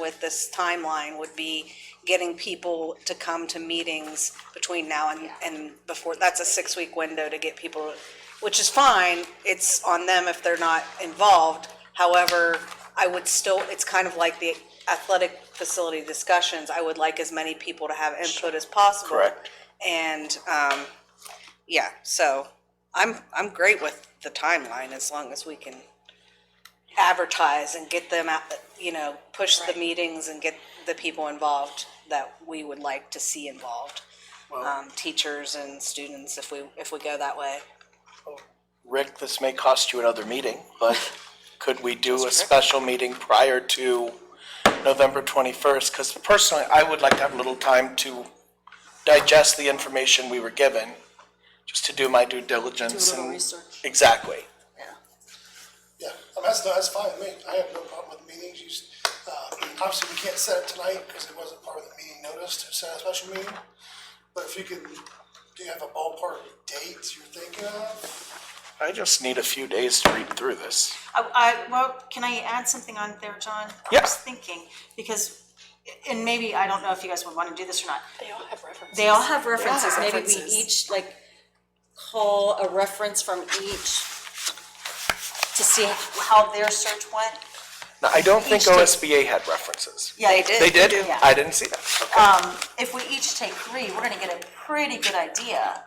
with this timeline would be getting people to come to meetings between now and, and before, that's a six-week window to get people, which is fine, it's on them if they're not involved. However, I would still, it's kind of like the athletic facility discussions, I would like as many people to have input as possible. Correct. And, um, yeah, so I'm, I'm great with the timeline as long as we can advertise and get them out, you know, push the meetings and get the people involved that we would like to see involved. Um, teachers and students, if we, if we go that way. Rick, this may cost you another meeting, but could we do a special meeting prior to November twenty-first? Because personally, I would like to have a little time to digest the information we were given, just to do my due diligence and. Exactly. Yeah, I mean, that's, that's fine with me. I have no problem with meetings. You, s- uh, obviously, we can't set it tonight because it wasn't part of the meeting notice to set a special meeting. But if you can, do you have a ballpark date you're thinking of? I just need a few days to read through this. I, I, well, can I add something on there, John? I Yeah. was thinking, because, and maybe, I don't know if you guys would wanna do this or not. They all have references. references, maybe we each like call a reference from each. To see how their search went. Now, I don't think Each day. OSBA had references. Yeah, they They did? Yeah. Um, I didn't see that. If we each take three, we're gonna get a pretty good idea,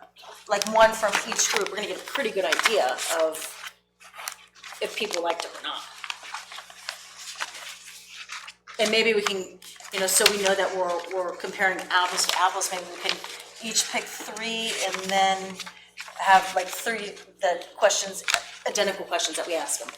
like one from each group, we're gonna get a pretty good idea of if people liked it or not. And maybe we can, you know, so we know that we're, we're comparing apples to apples, maybe we can each pick three and then have like three, the questions, identical questions that we ask them.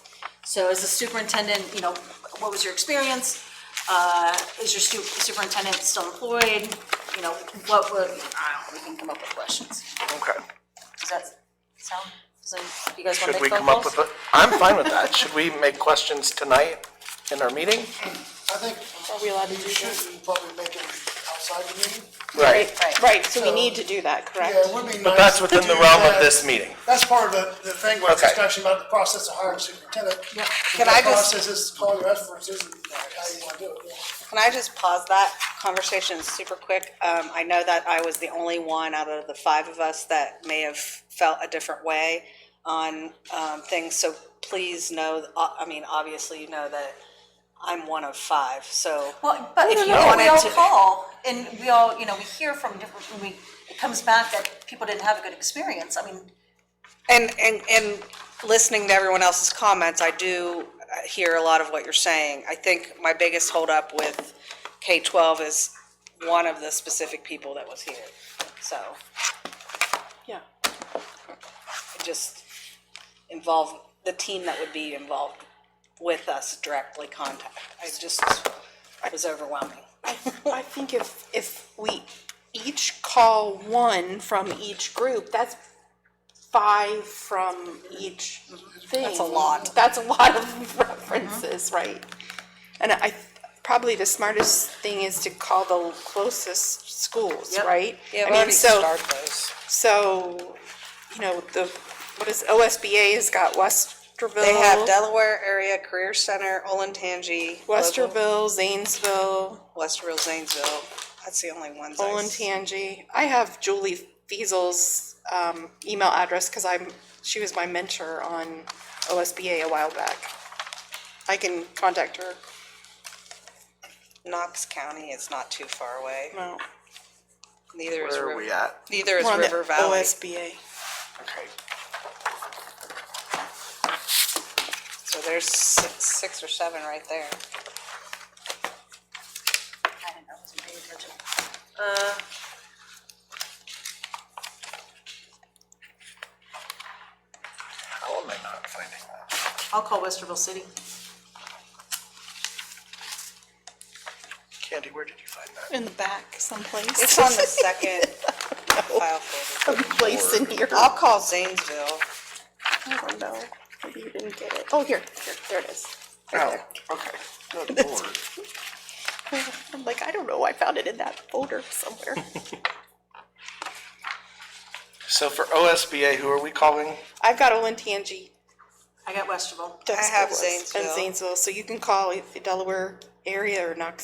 So as a superintendent, you know, what was your experience? Uh, is your stu- superintendent still employed? You know, what would, I don't know, we can come up with questions. Okay. Does that sound, does that, you guys wanna Should we make phone come up calls? with a, I'm fine with that. Should we make questions tonight in our meeting? I think Are we allowed to do you that? should probably make it outside the meeting. Right. Right, so we need to do that, correct? Yeah, it would be nice. But that's to within the do realm of that. this meeting. That's part of the, the thing where it's Okay. discussion about the process of hiring a superintendent. Yep. Can I The just- Process is calling your references and uh, how you want to do it. yeah. Can I just pause that conversation super quick? Um, I know that I was the only one out of the five of us that may have felt a different way on, um, things, so please know, uh, I mean, obviously you know that I'm one of five, so. Well, but If if you you we wanted all to- call, and we all, you know, we hear from different, when we, it comes back that people didn't have a good experience, I mean, And, and, and listening to everyone else's comments, I do uh, hear a lot of what you're saying. I think my biggest holdup with K-12 is one of the specific people that was here. So Yeah. it just involved, the team that would be involved with us directly contact. I just, it was overwhelming. I think if, if we each call one from each group, that's five from each thing. That's a lot. That's a lot of references, right? And I, probably the smartest thing is to call the closest schools, Yep. right? Yeah, I we mean, already so- started those. So, you know, the, what is, OSBA has got Westerville. They have Delaware Area Career Center, Olentangy. Logan- Westerville, Zanesville, Westerville, Zanesville. That's the only ones I s- Olentangy. I have Julie Fiesel's, um, email address, cause I'm, she was my mentor on OSBA a while back. I can contact her, Knox County is not too far away. no, Neither is Where are River. we at? Neither is we're on the River Valley. OSBA. Okay. So there's six, six or seven right there. I don't know, I wasn't paying attention. How am I not finding that? I'll call Westerville City. Candy, where did you find that? In the back someplace. It's on the second file folder. Place in here. I'll call Zanesville. I don't know, maybe you didn't get it. Oh, here, here, there it is. Oh, okay. Good lord. I'm like, I don't know, I found it in that folder somewhere. So for OSBA, who are we calling? I've got Olentangy. I got Westerville. I have Zanesville. And Zanesville, so you can call if the Delaware area or Knox